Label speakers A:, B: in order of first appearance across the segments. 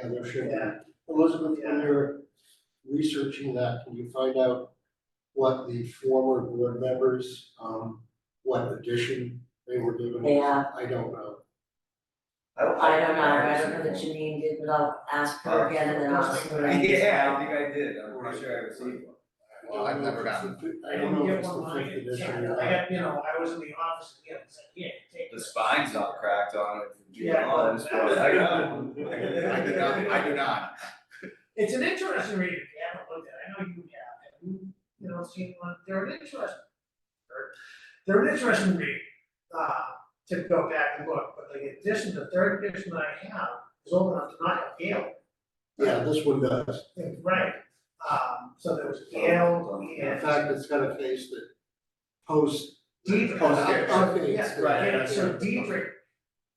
A: and there should be.
B: Yeah.
A: Elizabeth, when you're researching that, can you find out what the former board members, um, what addition they were given?
C: Yeah,
A: I don't know.
B: I don't
C: I don't know, I don't know that Janine did, but I'll ask her again and then I'll see what I can.
B: Yeah, I think I did, I'm pretty sure I received one.
D: Well, I've never gotten
A: I don't know if it's the fifth edition or
D: I
A: not.
D: got, you know, I was in the office and it was like, yeah, take
B: The
D: this.
B: spine's all cracked on it.
D: Yeah,
B: All
D: well,
B: this-
D: that's-
B: I got it.
D: I
B: I
D: did
B: do not, I do not.
D: It's an interesting read, if you haven't looked at it, I know you have, and you, you know, seen one, they're an interesting. or- They're an interesting read, uh, to go back and look, but the edition, the third edition that I have is old enough to not have Gale,
A: Yeah, this one does.
D: right? Um, so there was Gale
A: In
D: and
A: fact, it's got a face that post,
D: Deidre.
A: post,
B: yeah,
A: updates.
D: Yeah,
B: right,
D: and so Deidre,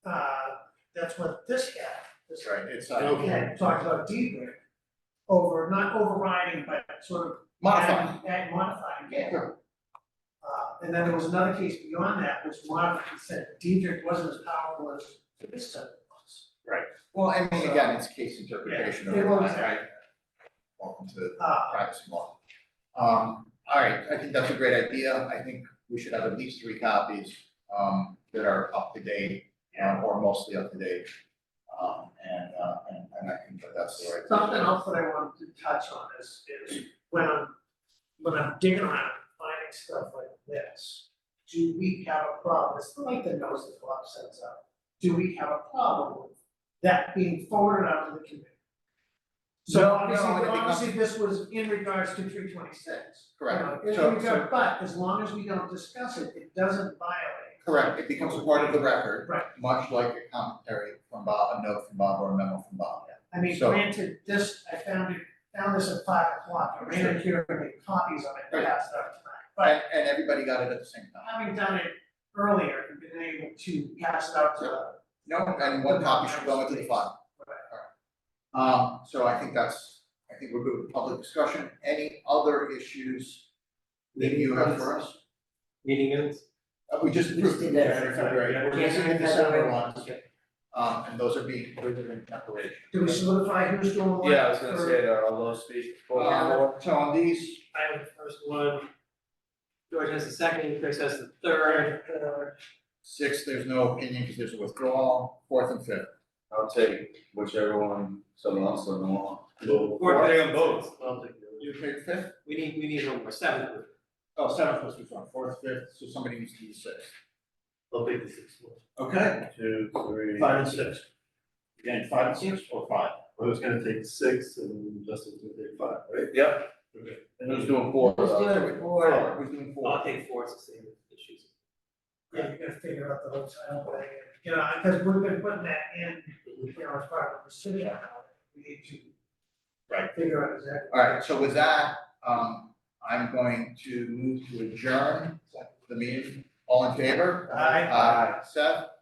D: uh, that's what this had, this
B: That's right, it's not
A: Okay.
D: had talked about debrick over, not overriding, but sort of.
B: modified.
D: adding- adding- modifying, yeah.
A: Sure.
D: Uh, and then there was another case beyond that, which modified, and said debrick wasn't as powerful as this stuff was.
B: Well, I mean, again, it's case interpretation
D: Yeah, it
B: over time,
D: was.
B: right? Welcome to
D: Uh,
B: privacy law. Um, all right, I think that's a great idea. I think we should have at least three copies, um, that are up to date, um, or mostly up to date. Um, and, uh, and, and I think that that's the right.
D: something else that I wanted to touch on is, is when I'm, when I'm digging around, finding stuff like this, do we have a problem? It's like the notice that Bob sends out. Do we have a problem with that being forwarded out to the committee?
B: No,
D: So
B: no,
D: obviously,
B: I think not.
D: obviously, this was in regards to three twenty-six.
B: Correct.
D: In
B: So-
D: regard, but as long as we don't discuss it, it doesn't violate.
B: Correct, it becomes a part of the record.
D: Right.
B: Much like a commentary from Bob, a note from Bob, or a memo from Bob.
D: I mean,
B: So-
D: granted, this, I found it, found this at five o'clock, I ran it here and made copies of it,
B: Right.
D: passed it out tonight. But
B: And, and everybody got it at the same time.
D: having done it earlier, and been able to pass it out to the.
B: No, and one copy should go into the file. Um, so I think that's, I think we're good with public discussion. Any other issues that you have for us?
E: Meeting minutes?
B: Uh, we just
C: We
B: approved
C: just
B: the
C: did that.
B: January, February, and we're
C: Yeah,
B: missing the
C: January,
B: December
C: February.
B: ones. Um, and those are being, those are being calculated.
D: Do we solidify who's doing what?
E: Yeah, I was gonna
D: or-
E: say that all those speak for.
B: Um, so on these,
E: I have the first one. George has the second, Chris has the third. uh,
B: six, there's no opinion because there's a withdrawal, fourth and fifth.
F: I'll take whichever one someone else doesn't want.
E: Fourth, they on both.
B: You pick fifth?
E: We need, we need one more, seventh.
B: Oh, seventh was withdrawn, fourth, fifth, so somebody needs to use six.
A: I'll take the sixth one.
B: Okay.
F: Two, three.
A: Five and six.
F: Again, five and six or five?
A: I was gonna take six and Justin's gonna take five, right?
F: Yep.
A: Okay. Uh,
F: And who's doing four?
C: Who's
B: Uh,
C: doing
B: so we-
C: four?
B: Who's doing
E: I'll
B: four?
E: take four, it's the same issues.
D: Yeah, you gotta figure out the whole title thing, you know, because we've been putting that in, you know, as part of the decision, we need to.
B: Right.
D: Figure out exactly.
B: All right, so with that, um, I'm going to move to adjourn the meeting. All in favor?
D: Aye.
B: Aye. Seth?